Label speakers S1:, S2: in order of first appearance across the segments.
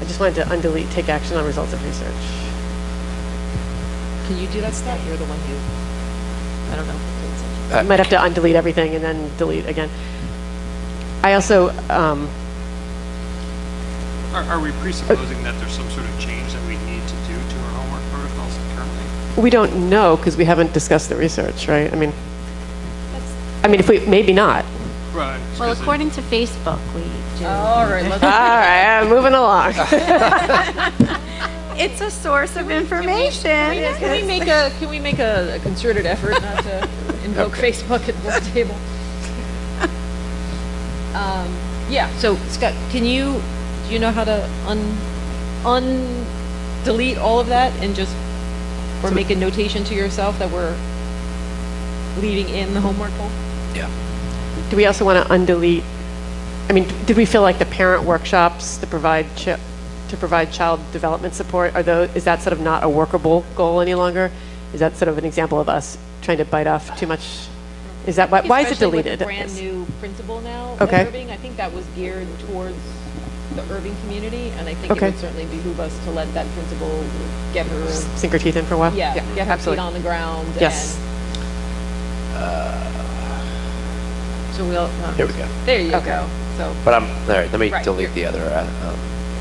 S1: I just wanted to undelete, take action on results of research.
S2: Can you do that, Scott? You're the one who, I don't know.
S1: You might have to undelete everything and then delete again. I also, um,
S3: Are, are we presupposing that there's some sort of change that we need to do to our homework protocols currently?
S1: we don't know because we haven't discussed the research, right? I mean, I mean, if we, maybe not.
S3: Right.
S4: Well,
S3: 'cause it-
S4: according to Facebook, we do.
S2: All right, let's.
S1: All right, moving along.
S5: It's a source of information.
S2: Can we make a, can we make a a concerted effort not to invoke Facebook at this table? Um, Yeah, so Scott, can you, do you know how to un, un, delete all of that and just, or make a notation to yourself that we're leaving in the homework poll?
S1: Do we also want to undelete, I mean, did we feel like the parent workshops to provide, chi- to provide child development support, are those, is that sort of not a workable goal any longer? Is that sort of an example of us trying to bite off too much? Is that, why, why is it deleted?
S2: Especially with the brand new principal now at
S1: Okay.
S2: Irving. I think that was geared towards the Irving community, and I think it
S1: Okay.
S2: would certainly behoove us to let that principal get her,
S1: Sink our teeth in for a while?
S2: yeah, get her feet
S1: absolutely.
S2: on the ground.
S1: Yes.
S2: and- So we'll, uh,
S6: Here we go.
S2: there you
S1: Okay.
S2: go. So,
S6: But I'm, all right, let me
S2: Right,
S6: delete
S2: here.
S6: the other, uh, um,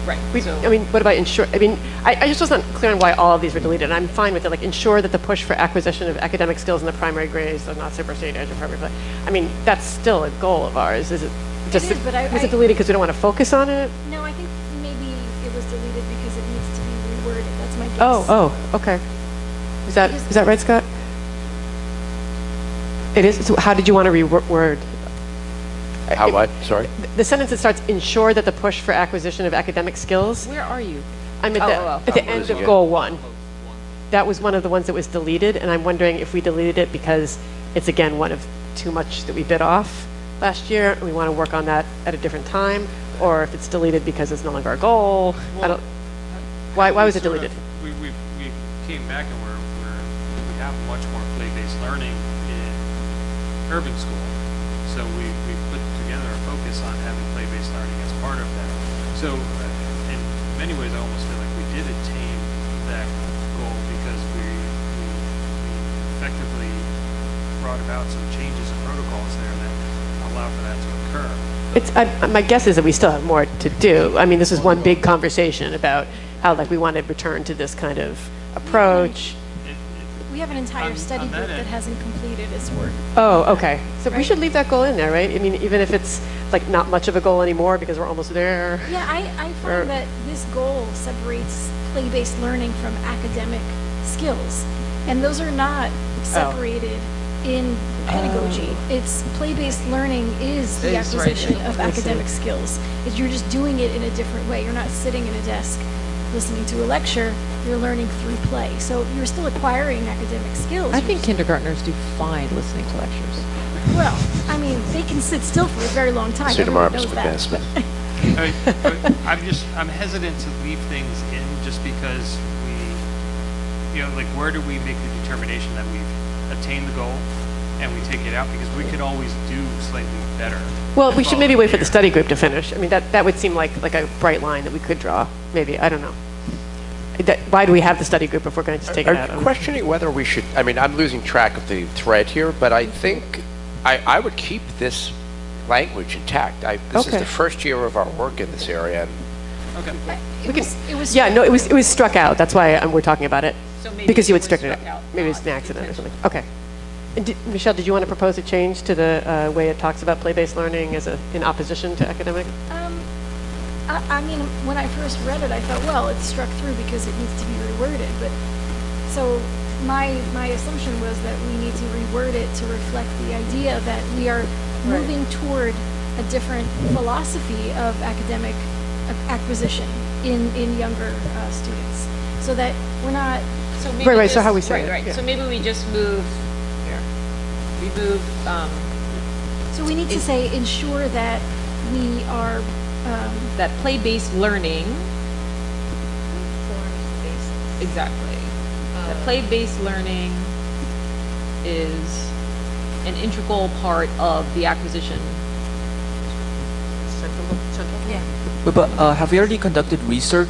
S2: right,
S1: We-
S2: so.
S1: I mean, what about ensure, I mean, I, I just wasn't clear on why all of these were deleted, and I'm fine with it, like, ensure that the push for acquisition of academic skills in the primary grades does not supersede age appropriate play. I mean, that's still a goal of ours, is it? just-
S7: is, but I-
S1: Is
S7: I-
S1: it deleted because we don't want to focus on it?
S7: No, I think maybe it was deleted because it needs to be reworded. That's my guess.
S1: Oh, oh, okay. Is that, is that right, Scott? It is, so how did you want to reword?
S6: how what, sorry?
S1: The sentence that starts, ensure that the push for acquisition of academic skills,
S2: Where are you?
S1: I'm at
S2: Oh,
S1: the,
S2: oh, oh.
S1: at the
S6: I'm
S1: end
S6: losing
S1: of
S6: you.
S1: goal one. That was one of the ones that was deleted, and I'm wondering if we deleted it because it's again one of too much that we bit off last year, and we want to work on that at a different time, or if it's deleted because it's no longer a goal. I don't, why, why was it
S3: sort of-
S1: deleted?
S3: We, we, we came back and we're, we're, we have much more play-based learning in urban school. So we, we put together a focus on having play-based learning as part of that. So uh, in many ways, I almost feel like we did attain that goal because we, we we effectively brought about some changes in protocols there that allow for that to occur.
S1: It's, I, my guess is that we still have more to do. I mean, this is one big conversation about how, like, we want to return to this kind of approach.
S7: We have an
S3: On-
S7: entire study
S3: on that
S7: group that
S3: end.
S7: hasn't completed its work.
S1: Oh, okay. So we should leave that goal in there, right? I mean, even if it's, like, not much of a goal anymore because we're almost there.
S7: Yeah, I, I
S2: Er.
S1: Or-
S7: find that this goal separates play-based learning from academic skills. And those are not
S2: Oh.
S7: separated in pedagogy. It's play-based learning is the
S2: It's Oh. right.
S7: acquisition of
S1: Makes
S7: academic skills. It's- You're just doing it in a different way. You're not sitting at a desk listening to a lecture, you're learning through play. So you're still acquiring academic skills.
S2: I
S7: You're
S2: think
S7: just-
S2: kindergartners do fine listening to lectures.
S7: Well, I mean, they can sit still for a very long time.
S6: Student
S7: Everyone
S6: arms
S7: knows that.
S6: advancement.
S3: I- I- I'm just, I'm hesitant to leave things in just because we, you know, like, where do we make the determination that we've attained the goal and we take it out? Because we could always do slightly better.
S1: Well, we should maybe
S3: following
S1: wait for the
S3: year.
S1: study group to finish. I mean, that, that would seem like, like a bright line that we could draw, maybe. I don't know. That, why do we have the study group if we're going to just take um, it out?
S6: I'm questioning whether we should, I mean, I'm losing track of the thread here, but I think I, I would keep this language intact. I, this is
S1: Okay.
S6: the first year of our work in this area, and
S3: Okay.
S1: We can,
S7: It was
S1: yeah, no, it was, it was struck out. That's why um, we're talking about it.
S2: So maybe
S1: Because you
S2: it
S1: had
S2: was
S1: stricken it
S2: struck
S1: out.
S2: out,
S1: Maybe it was
S2: not
S1: an accident or something. Okay. And did- Michelle, did you want to propose a change to the uh, way it talks about play-based learning as a, in opposition to academic?
S7: Um, I, I mean, when I first read it, I thought, well, it's struck through because it needs to be reworded, but, so, my, my assumption was that we need to reword it to reflect the idea that we are moving toward a different philosophy of academic ac- acquisition in, in younger, uh, students. So that we're not,
S2: So
S1: Right,
S2: maybe
S1: right, so
S2: just-
S1: how we say it,
S2: Right,
S1: yeah.
S2: right, so maybe we just move, here, we move, um,
S7: so we need to say, ensure that we are, um,
S2: that play-based learning. Exactly. That play-based learning is an integral part of the acquisition
S1: that's a little chunky.
S2: Yeah.
S8: But uh, have you already conducted research